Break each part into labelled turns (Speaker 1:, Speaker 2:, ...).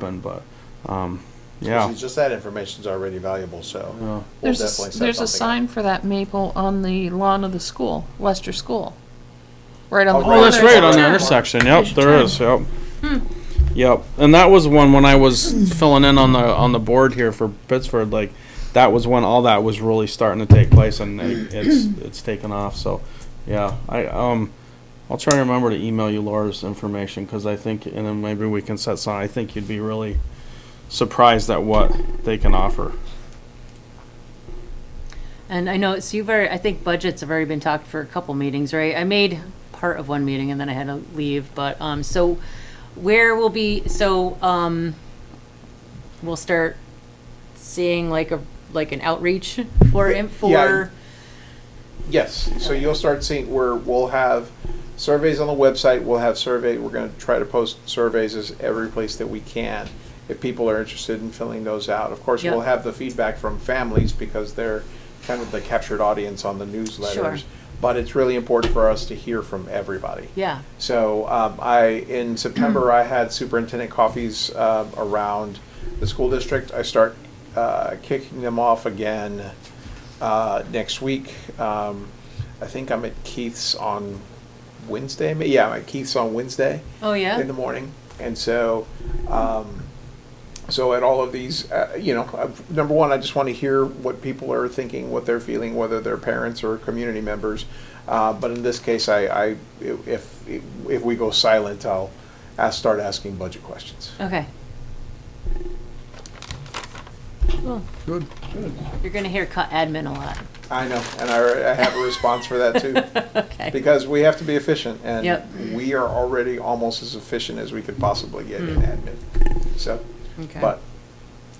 Speaker 1: happen, but, um,
Speaker 2: Yeah,
Speaker 1: yeah.
Speaker 2: just that information's already valuable, so.
Speaker 1: Yeah.
Speaker 2: we'll
Speaker 3: There's a,
Speaker 2: definitely
Speaker 3: s-
Speaker 2: set
Speaker 3: there's a
Speaker 2: something up.
Speaker 3: sign for that maple on the lawn of the school, Lester School. Right on
Speaker 2: Oh,
Speaker 3: the.
Speaker 2: right.
Speaker 1: Oh, that's right, on the
Speaker 3: corner.
Speaker 1: intersection,
Speaker 3: There's
Speaker 1: yep,
Speaker 3: your
Speaker 1: there
Speaker 3: turn.
Speaker 1: is, yep.
Speaker 4: Hmm.
Speaker 1: Yep, and that was one, when I was filling in on the, on the board here for Pittsford, like, that was when all that was really starting to take place and it- it's, it's taken off, so, yeah, I, um, I'll try and remember to email you Laura's information, cause I think, and then maybe we can set some, I think you'd be really surprised at what they can offer.
Speaker 4: And I know, so you've already, I think budgets have already been talked for a couple meetings, right? I made part of one meeting and then I had to leave, but, um, so where will be, so, um, we'll start seeing like a, like an outreach for, in-
Speaker 2: Yeah.
Speaker 4: for,
Speaker 2: Yes, so you'll start seeing where we'll have surveys on the website, we'll have survey, we're gonna try to post surveys as every place that we can. If people are interested in filling those out, of course,
Speaker 4: Yeah.
Speaker 2: we'll have the feedback from families because they're kind of the captured audience on the newsletters. But it's really important for us to hear from everybody.
Speaker 4: yeah,
Speaker 2: So um, I, in September, I had superintendent coffees um, around the school district. I start uh, kicking them off again uh, next week. Um, I think I'm at Keith's on Wednesday. ma- Yeah, I'm at Keith's on Wednesday
Speaker 4: oh,
Speaker 2: in the
Speaker 4: yeah?
Speaker 2: morning. And so, um, so at all of these, uh, you know, uh, number one, I just want to hear what people are thinking, what they're feeling, whether they're parents or community members. Uh, but in this case, I, I, if, if we go silent, I'll ask, start asking budget questions.
Speaker 4: Okay. Cool.
Speaker 1: Good.
Speaker 4: You're gonna hear cut admin a lot.
Speaker 2: I know, and I, I have a response for that too.
Speaker 4: Okay,
Speaker 2: Because we have to be efficient
Speaker 4: Yep.
Speaker 2: and we are already almost as efficient as we could possibly get in admin. So,
Speaker 4: Mm. Okay.
Speaker 2: but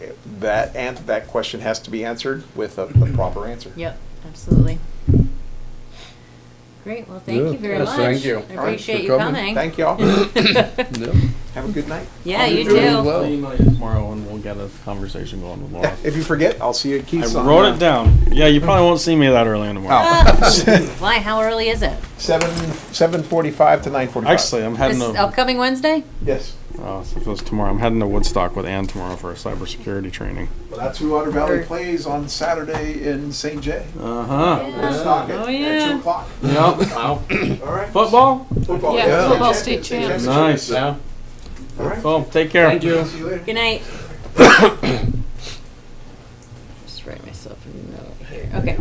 Speaker 2: eh, that, and that question has to be answered with a a proper answer.
Speaker 4: yep, absolutely. Great, well, thank you very
Speaker 5: Yes,
Speaker 4: much.
Speaker 5: thank you.
Speaker 4: I appreciate
Speaker 5: for
Speaker 4: you coming.
Speaker 5: coming.
Speaker 2: Thank y'all.
Speaker 5: Yep.
Speaker 2: Have a good night.
Speaker 4: Yeah, you
Speaker 5: doing
Speaker 4: do.
Speaker 5: well.
Speaker 1: I'll email you tomorrow and we'll get a conversation going with Laura.
Speaker 2: Yeah, If you forget, I'll see you at Keith's.
Speaker 1: I
Speaker 2: on,
Speaker 1: wrote
Speaker 2: uh,
Speaker 1: it down. Yeah, you probably won't see me that early in the morning.
Speaker 4: Why? How early is it?
Speaker 2: Seven, seven forty-five to nine forty-five.
Speaker 1: Actually, I'm heading
Speaker 4: This
Speaker 1: to.
Speaker 4: upcoming Wednesday?
Speaker 2: Yes.
Speaker 1: Oh, so if it was tomorrow. I'm heading to Woodstock with Ann tomorrow for a cybersecurity training.
Speaker 2: Well, that's who Otter Valley
Speaker 4: Or-
Speaker 2: plays on Saturday in St. Jay.
Speaker 1: Uh huh.
Speaker 2: Woodstock at-
Speaker 4: Oh,
Speaker 2: At
Speaker 4: yeah.
Speaker 2: two o'clock. All right.
Speaker 1: Football.
Speaker 2: Football.
Speaker 3: Yeah,
Speaker 5: Yeah.
Speaker 3: football state champs.
Speaker 1: Nice.
Speaker 5: Yeah.
Speaker 2: All right.
Speaker 1: Oh, take care.
Speaker 2: See you later.
Speaker 4: Good night. Just write myself a note here. Okay.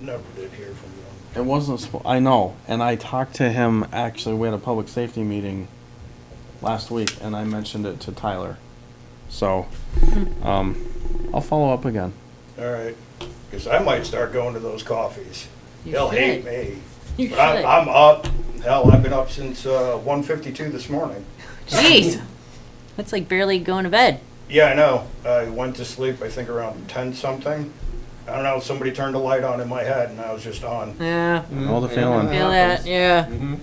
Speaker 6: Never did hear from them.
Speaker 1: It wasn't. Sp- I know, and I talked to him. Actually, we had a public safety meeting last week, and I mentioned it to Tyler. So, um, I'll follow up again.
Speaker 6: All right, because I might start going to those coffees.
Speaker 4: You
Speaker 6: They'll hate
Speaker 4: should.
Speaker 6: me.
Speaker 4: You
Speaker 6: But I'm,
Speaker 4: should.
Speaker 6: I'm up. Hell, I've been up since uh, 1:52 this morning.
Speaker 4: Jeez. That's like barely going to bed.
Speaker 6: Yeah, I know. I went to sleep. I think around 10 something. I don't know. Somebody turned a light on in my head, and I was just on.
Speaker 4: Yeah.
Speaker 1: All the feeling.
Speaker 4: Feel that,
Speaker 5: Mm-hmm.
Speaker 4: yeah.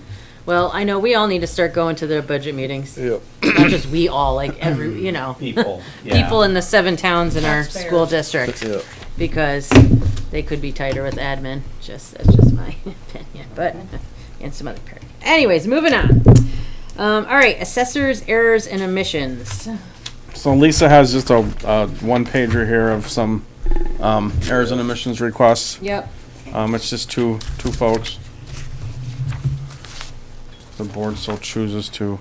Speaker 4: Well, I know we all need to start going to the budget meetings.
Speaker 5: Yep.
Speaker 4: Not just we all, like every, you know,
Speaker 7: people.
Speaker 4: people in the seven towns in our school district.
Speaker 5: Yep.
Speaker 4: because they could be tighter with admin. Just that's just my opinion, but and some other part. Anyways, moving on. Um, all right, assessors, errors, and omissions.
Speaker 1: So Lisa has just a uh, one pager here of some um, errors and omissions requests.
Speaker 4: Yep.
Speaker 1: Um, it's just two, two folks. The board still chooses to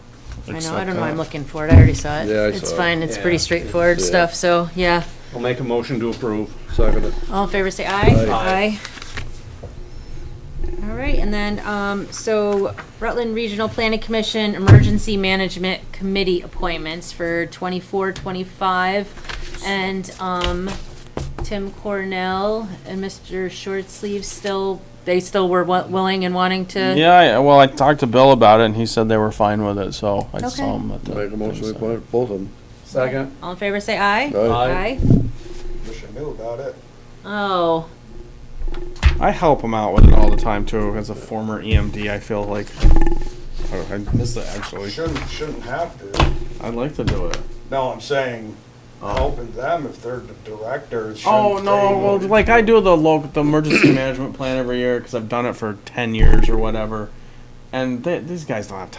Speaker 4: I
Speaker 1: accept
Speaker 4: know. I don't know. why I'm
Speaker 1: that.
Speaker 4: looking for it. I already saw it.
Speaker 5: Yeah, I
Speaker 4: it's
Speaker 5: saw it.
Speaker 4: fine. It's pretty
Speaker 7: Yeah.
Speaker 4: straightforward
Speaker 5: Yeah.
Speaker 4: stuff. So yeah,
Speaker 7: I'll make a motion to approve.
Speaker 5: Second it.
Speaker 4: all in favor, say
Speaker 5: Aye.
Speaker 4: aye. All right, and then um, so Rutland Regional Planning Commission Emergency Management Committee appointments for 24, 25, and um, Tim Cornell and Mr. Shortsleeve still they still were wa- willing and wanting to.
Speaker 1: Yeah, I, well, I talked to Bill about it and he said they were fine with it, so I
Speaker 4: Okay.
Speaker 1: saw him at the.
Speaker 5: Make a motion,
Speaker 1: thing,
Speaker 5: we
Speaker 1: so-
Speaker 5: appoint both of them.
Speaker 7: Second.
Speaker 4: All in favor, say aye.
Speaker 5: Aye.
Speaker 6: Wish I knew about it.
Speaker 4: Oh,
Speaker 1: I help him out with it all the time too, as a former EMD, I feel like, I- I miss it
Speaker 6: We
Speaker 1: actually.
Speaker 6: shouldn't shouldn't have to.
Speaker 1: I'd like to do it.
Speaker 6: No, I'm saying helping them if they're the directors.
Speaker 1: Oh
Speaker 6: shouldn't
Speaker 1: no!
Speaker 6: they-
Speaker 1: Well, like I do the local, the emergency management plan every year because I've done it for ten years or whatever, and they, these guys don't have time.